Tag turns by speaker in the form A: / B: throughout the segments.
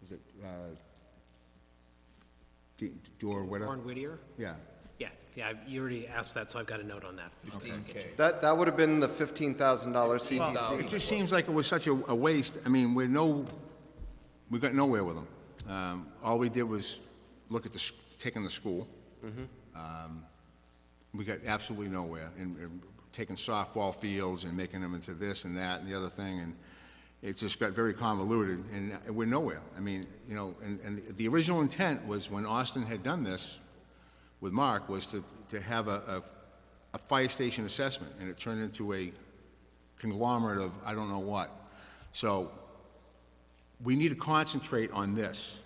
A: was it, uh, D- Door, whatever?
B: Warren Whittier?
A: Yeah,
B: Yeah, yeah, I've- you already asked that, so I've got a note on that.
C: That, that would have been the fifteen thousand dollar CDC.
A: it just seems like it was such a a waste, I mean, we're no, we got nowhere with them. Um, All we did was look at the, s- taking the school. Um, We got absolutely nowhere, and and taking softball fields and making them into this and that and the other thing, and it just got very convoluted, and uh, we're nowhere. I mean, you know, and, and the original intent was, when Austin had done this, with Mark was to, to have a, a, a fire station assessment, and it turned into a conglomerate of I don't know what. So, we need to concentrate on this.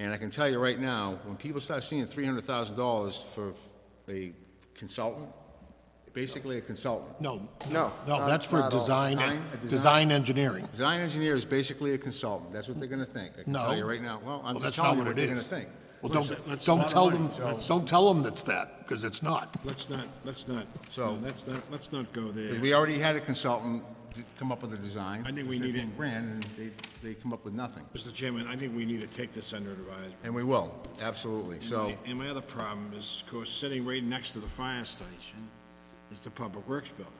A: And I can tell you right now, when people start seeing three hundred thousand dollars for a consultant, basically a consultant,
D: No.
C: No,
D: No,
C: not-
D: that's for
C: not all.
D: design,
A: Design- a design-
D: design engineering.
A: design engineer is basically a consultant, that's what they're gonna think. I can
D: No.
A: tell you right now, well, I'm
D: Well,
A: just
D: that's not
A: telling you
D: what
A: what
D: it
A: they're gonna think.
D: is. Well, don't, don't tell them, don't tell them that's that, because it's not.
E: Let's not, let's not,
A: So-
E: no, let's not, let's not go there.
A: We already had a consultant d- come up with a design.
E: I think
A: for
E: we need
A: 15
E: it.
A: grand, and they, they come up with nothing.
E: Mr. Chairman, I think we need to take this under advisement.
A: And we will, absolutely, so,
E: And my other problem is, of course, sitting right next to the fire station is the Public Works Building,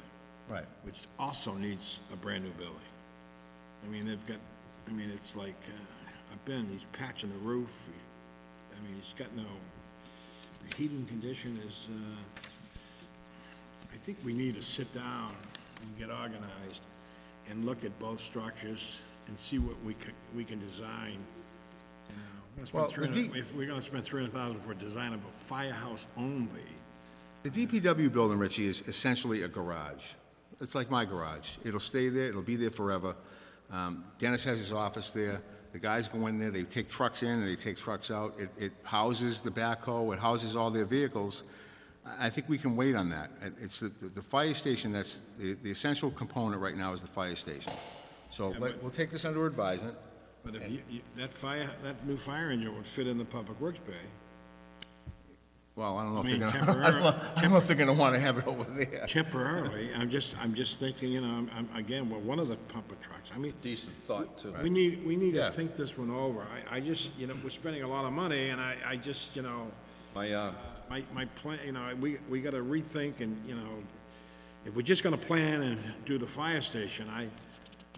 A: right.
E: which also needs a brand-new building. I mean, they've got, I mean, it's like, uh, I've been, he's patching the roof, he- I mean, he's got no, the heating condition is, uh, I think we need to sit down and get organized and look at both structures and see what we could, we can design. You know, we're gonna spend
A: Well, the
E: 300
A: D-
E: If we're gonna spend three hundred thousand for a design of a firehouse only,
A: The DPW building, Richie, is essentially a garage. It's like my garage. It'll stay there, it'll be there forever. Um, Dennis has his office there, the guys go in there, they take trucks in, and they take trucks out. It, it houses the backhoe, it houses all their vehicles. I, I think we can wait on that. It- It's the, the fire station that's, the, the essential component right now is the fire station. So, let- we'll take this under advisement.
E: but if you, you, that fire, that new fire engine would fit in the public works bay.
A: Well, I don't know if
E: I
A: they're
E: mean,
A: gonna, I don't know- I don't know if they're gonna wanna have it over there.
E: Temporarily, I'm just, I'm just thinking, you know, I'm, I'm, again, well, one of the pumper trucks, I mean,
C: Decent thought, too.
E: We need, we need
A: Yeah.
E: to think this one over. I, I just, you know, we're spending a lot of money, and I, I just, you know,
C: My, uh,
E: my, my plan, you know, we, we gotta rethink and, you know, if we're just gonna plan and do the fire station, I,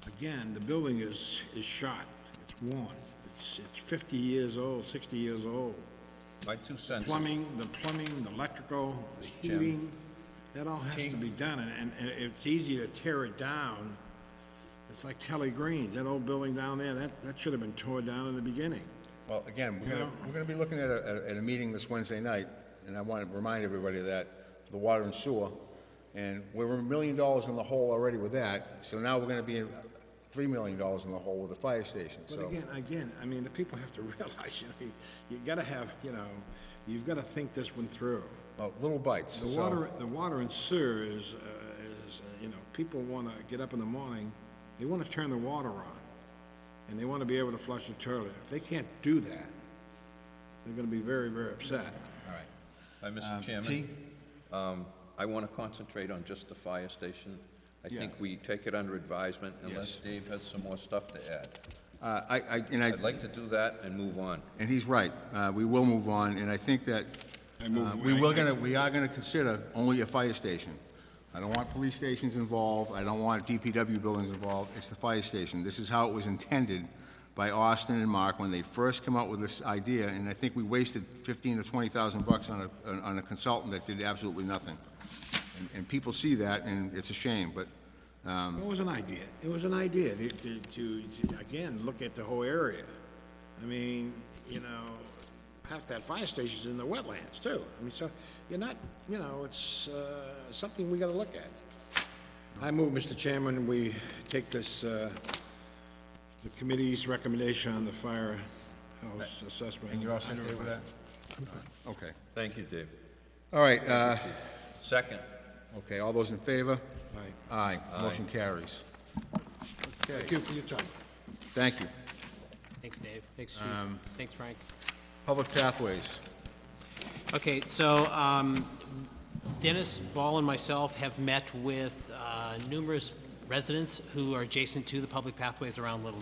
E: again, the building is, is shot. It's worn. It's, it's fifty years old, sixty years old.
C: my two cents.
E: Plumbing, the plumbing, the electrical, the heating, that all has to be done, and, and- and if it's easy to tear it down. It's like Kelly Greens, that old building down there, that, that should have been torn down in the beginning.
A: Well, again, we're gonna, we're gonna be looking at a, at a meeting this Wednesday night, and I want to remind everybody of that, the water and sewer, and we're a million dollars in the hole already with that, so now we're gonna be in three million dollars in the hole with the fire station,
E: But
A: so.
E: again, again, I mean, the people have to realize, you know, you gotta have, you know, you've gotta think this one through.
A: Well, uh, little bites,
E: The
A: so,
E: water, the water and sewer is, uh, is, uh, you know, people wanna get up in the morning, they wanna turn the water on, and they wanna be able to flush the toilet. If they can't do that, they're gonna be very, very upset.
A: all right.
F: Hi, Mr.
A: T?
F: Chairman. Um, I want to concentrate on just the fire station. I think we take it under advisement unless Dave has some more stuff to add.
A: Uh, I, I, and I,
F: I'd like to do that and move on.
A: and he's right, uh, we will move on, and I think that,
E: I move-
A: uh, we will gonna, we are gonna consider only a fire station. I don't want police stations involved, I don't want DPW buildings involved, it's the fire station. This is how it was intended by Austin and Mark when they first come up with this idea, and I think we wasted fifteen or twenty thousand bucks on a, on- on a consultant that did absolutely nothing. And, and people see that, and it's a shame, but
E: It was an idea, it was an idea to, to, to, to, again, look at the whole area. I mean, you know, half that fire station's in the wetlands too. I mean, so, you're not, you know, it's, uh, something we gotta look at. I move, Mr. Chairman, we take this, uh, the committee's recommendation on the firehouse assessment.
A: And you're all set with that? Okay.
F: Thank you, Dave.
A: All right, uh,
F: Second,
A: okay, all those in favor?
E: Aye.
A: Aye, motion carries.
D: Thank you for your time.
A: Thank you.
B: Thanks, Dave. Thanks, Chief. Thanks, Frank.
A: Public Pathways.
B: Okay, so um, Dennis Ball and myself have met with uh, numerous residents who are adjacent to the public pathways around Little